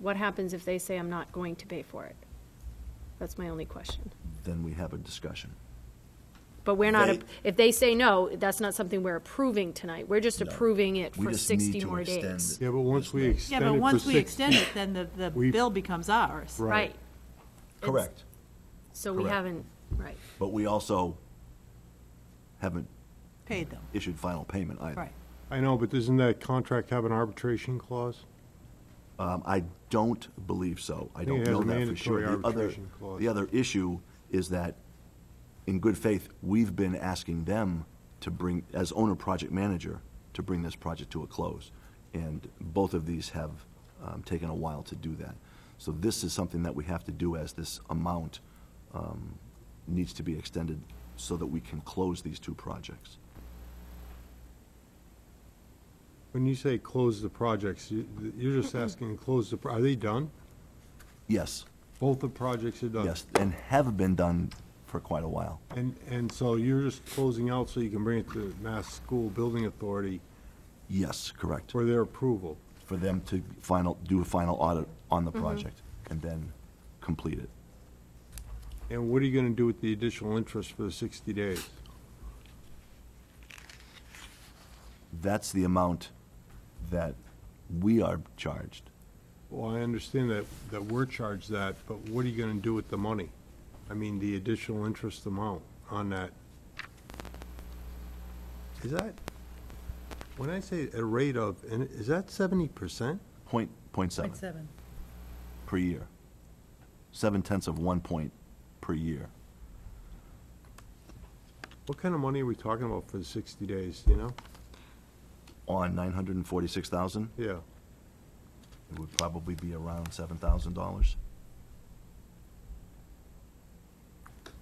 What happens if they say, I'm not going to pay for it? That's my only question. then we have a discussion. But we're not, They- if they say no, that's not something we're approving tonight. We're just No. approving it We for just need 60 to more extend days. it. Yeah, but once we Yeah, extend it but for once we 60 extend it, then the, the We- bill becomes ours. Right. Right. Correct. So we Correct. haven't, right. But we also haven't Paid them, issued final payment either. right. I know, but doesn't that contract have an arbitration clause? Um, I don't believe so. I think don't it has know a that for mandatory sure. The other, arbitration clause. the other issue is that, in good faith, we've been asking them to bring, as owner project manager, to bring this project to a close. And both of these have um, taken a while to do that. So this is something that we have to do as this amount um, needs to be extended so that we can close these two projects. When you say close the projects, you- you're just asking, close the, pro- are they done? Yes, Both the projects are done? yes, and have been done for quite a while. And, and so you're just closing out so you can bring it to Mass School Building Authority Yes, correct. for their approval? for them to final, do a final audit on the project and then complete it. And what are you gonna do with the additional interest for the 60 days? That's the amount that we are charged. Well, I understand that, that we're charged that, but what are you gonna do with the money? I mean, the additional interest amount on that? Is that, when I say a rate of, and is that 70%? Point, point seven Point seven. per year. Seven tenths of one point per year. What kind of money are we talking about for the 60 days, do you know? On nine hundred and forty-six thousand, Yeah, it would probably be around seven thousand dollars.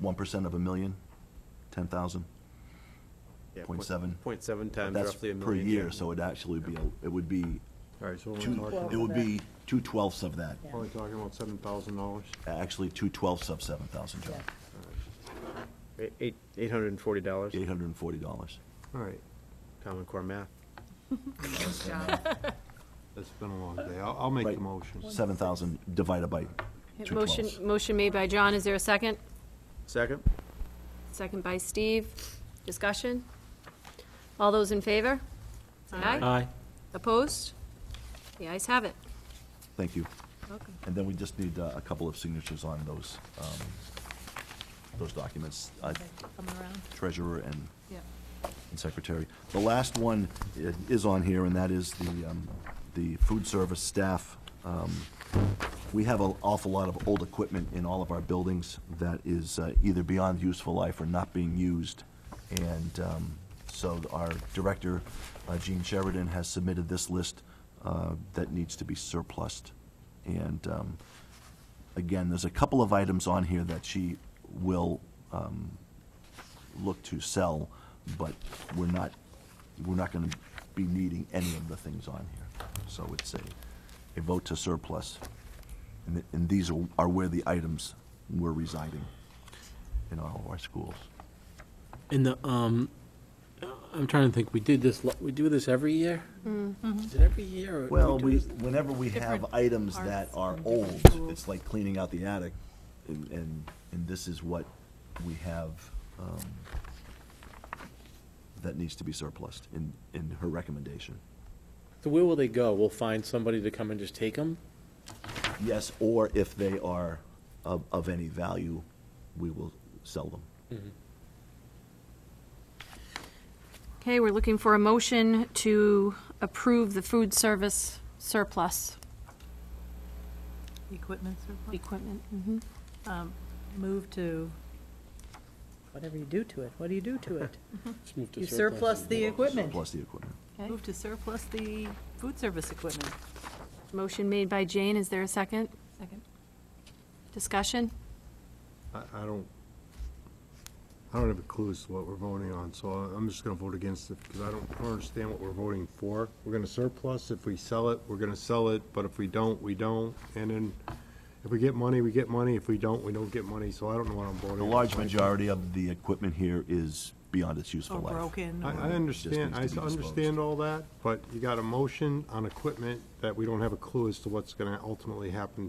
One percent of a million, ten thousand. Yeah, Point seven. Point seven times That's roughly a per million. year, yeah. so it'd actually be, a- it would be all right, so we're two, talking, it would be two twelfths of that. probably talking about $7,000. Actually, two twelfths of seven thousand, John. Eight- Eight, eight hundred and forty dollars, Eight hundred and forty dollars. All right, Common Core math. it's been a long day. I'll, I'll make the Right. motion. Seven thousand divided by two Motion, twelfths. motion made by John. Is there a second? Second? Second by Steve. Discussion? All those in favor? Say aye. Opposed? The ayes have it. Thank you. Welcome. And then we just need uh, a couple of signatures on those, um, those documents, uh, Coming around? treasurer and Yeah. and secretary. The last one i- is on here, and that is the, um, the food service staff. Um, We have an awful lot of old equipment in all of our buildings that is uh, either beyond useful life or not being used. And um, so our director, uh, Gene Sheridan, has submitted this list uh, that needs to be surplused. And um, again, there's a couple of items on here that she will um, look to sell, but we're not, we're not gonna be needing any of the things on here. So it's a, a vote to surplus. And, th- and these are, are where the items were residing in all of our schools. In the, um, I'm trying to think, we did this, lo- we do this every year? Mm-hmm. Is it every year? or do Well, do we, this- whenever we have Different items that parts are from different old, schools. it's like cleaning out the attic, and, and, and this is what we have, um, that needs to be surplused in, in her recommendation. So where will they go? We'll find somebody to come and just take them? Yes, or if they are of, of any value, we will sell them. Okay, we're looking for a motion to approve the food service surplus Equipment surplus? equipment. move to, whatever you do to it, what do you do to it? Just move to You surplus and the we'll- equipment. Plus the equipment. Okay. Move to surplus the food service equipment. Motion made by Jane. Is there a second? Second. Discussion? I, I don't, I don't have a clue as to what we're voting on, so I- I'm just gonna vote against it, because I don't, I don't understand what we're voting for. We're gonna surplus, if we sell it, we're gonna sell it, but if we don't, we don't, and then if we get money, we get money, if we don't, we don't get money, so I don't know what I'm voting on. The large majority of the equipment here is beyond its useful or life. broken, I, or- I understand, I Just needs to be understand disclosed. all that, but you got a motion on equipment that we don't have a clue as to what's gonna ultimately happen